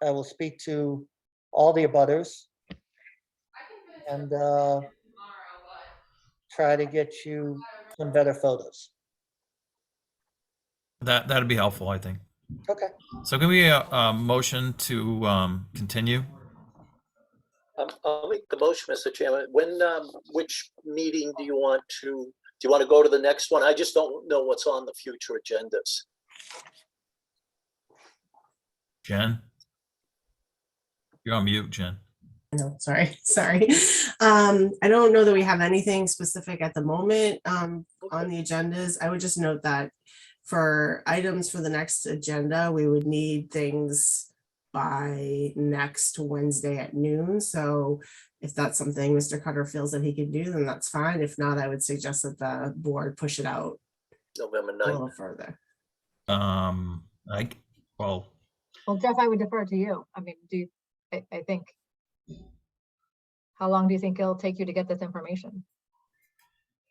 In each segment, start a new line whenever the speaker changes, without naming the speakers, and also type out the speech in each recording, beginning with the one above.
I will speak to all the abutters and uh, try to get you some better photos.
That that'd be helpful, I think.
Okay,
So can we uh, a motion to um, continue?
Um, I'll make the motion, Mr. Chairman. When, um, which meeting do you want to, do you want to go to the next one? I just don't know what's on the future agendas.
Jen, you're on mute, Jen.
No, sorry, sorry. Um, I don't know that we have anything specific at the moment, um, on the agendas. I would just note that for items for the next agenda, we would need things by next Wednesday at noon. So if that's something Mr. Cutter feels that he can do, then that's fine. If not, I would suggest that the board push it out
November
a
9th.
little further.
Um, I well,
Well, Jeff, I would defer to you. I mean, do, you- I, I think. How long do you think it'll take you to get this information?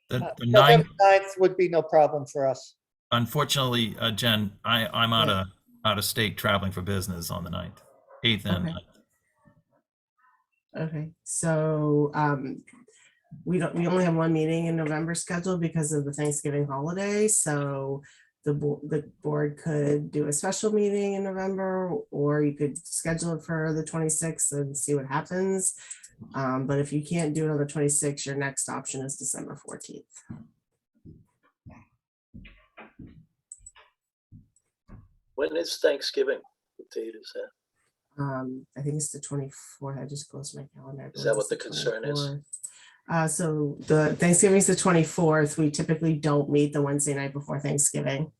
the,
Uh,
the
November
nine.
9th would be no problem for us.
Unfortunately, uh, Jen, I I'm out of out of state traveling for business on the 9th, eighth and
Okay.
9th.
Okay, so, um, we don't, we only have one meeting in November scheduled because of the Thanksgiving holiday, so the board, the board could do a special meeting in November, or you could schedule it for the twenty-sixth and see what happens. Um, but if you can't do it on the twenty-sixth, your next option is December fourteenth.
When is Thanksgiving? What date is that?
Um, I think it's the twenty-fourth. I just closed my calendar. I
Is
believe
that
it's
what the concern is?
24th. Uh, so the Thanksgiving's the twenty-fourth. We typically don't meet the Wednesday night before Thanksgiving,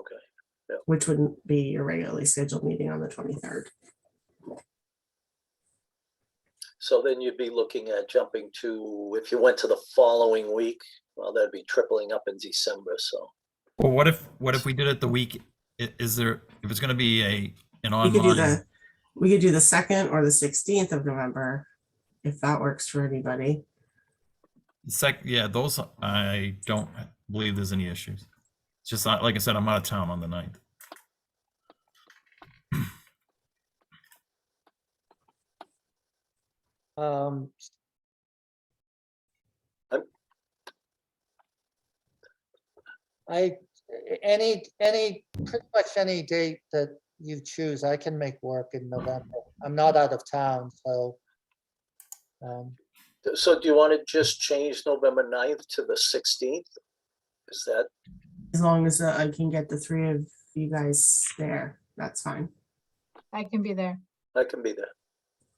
Okay.
which wouldn't be your regularly scheduled meeting on the twenty-third.
So then you'd be looking at jumping to, if you went to the following week, well, that'd be tripling up in December, so.
Well, what if what if we did it the week? i- Is there if it's going to be a an
We could do
online?
the, we could do the second or the sixteenth of November, if that works for anybody.
Sec, yeah, those I don't believe there's any issues. It's just not- like I said, I'm out of town on the 9th.
Um,
I'm-
I, any, any, pretty much any date that you choose, I can make work in November. I'm not out of town, so. um,
So do you want to just change November 9th to the 16th? Is that,
As long as uh, I can get the three of you guys there, that's fine.
I can be there.
I can be there.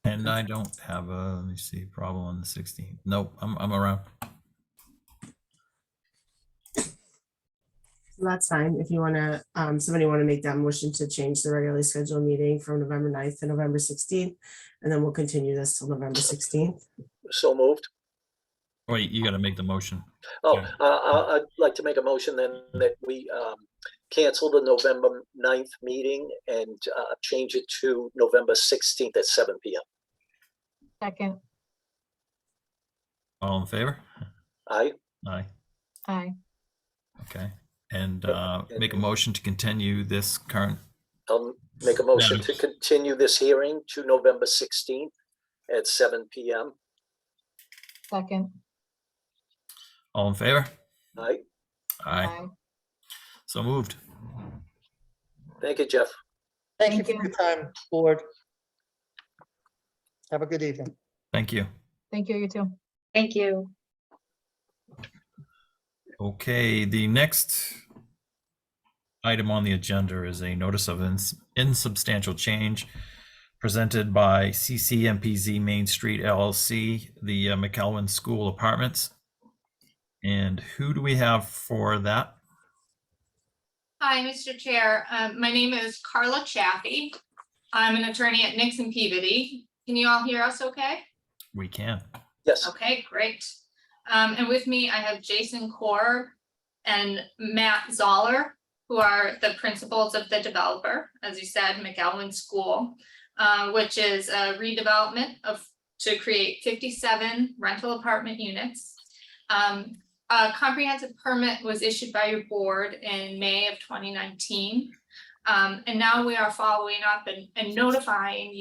And I don't have a, let me see, problem on the 16th. Nope, I'm, I'm around.
So That's fine. If you want to, um, somebody want to make that motion to change the regularly scheduled meeting from November 9th to November sixteenth, and then we'll continue this till November sixteenth.
So moved?
Wait, you gotta make the motion.
Oh,
Yeah.
uh, I- I'd like to make a motion then that we um, cancel the November 9th meeting and uh, change it to November 16th at seven PM.
Second,
All in favor?
Aye,
Aye,
aye,
okay. And,
Yep,
uh, make a
and-
motion to continue this current,
I'll make a motion to
Madam-
continue this hearing to November 16th at seven PM.
second,
all in favor?
Aye,
Aye,
aye.
so moved.
thank you, Jeff.
Thank you
Thank
for
you.
your time, board. Have a good evening.
Thank you.
Thank you, you too.
Thank you.
Okay, the next item on the agenda is a notice of ins- insubstantial change presented by CCMPZ Main Street LLC, the uh, McElwain School Apartments. And who do we have for that?
Hi, Mr. Chair. Uh, My name is Carla Chaffee. I'm an attorney at Nixon Peabody. Can you all hear us okay?
We can.
Yes,
Okay, great. Um, And with me, I have Jason Core and Matt Zoller, who are the principals of the developer, as you said, McAllen School, uh, which is a redevelopment of, to create 57 rental apartment units. Um, A comprehensive permit was issued by your board in May of 2019. Um, and now we are following up and, and notifying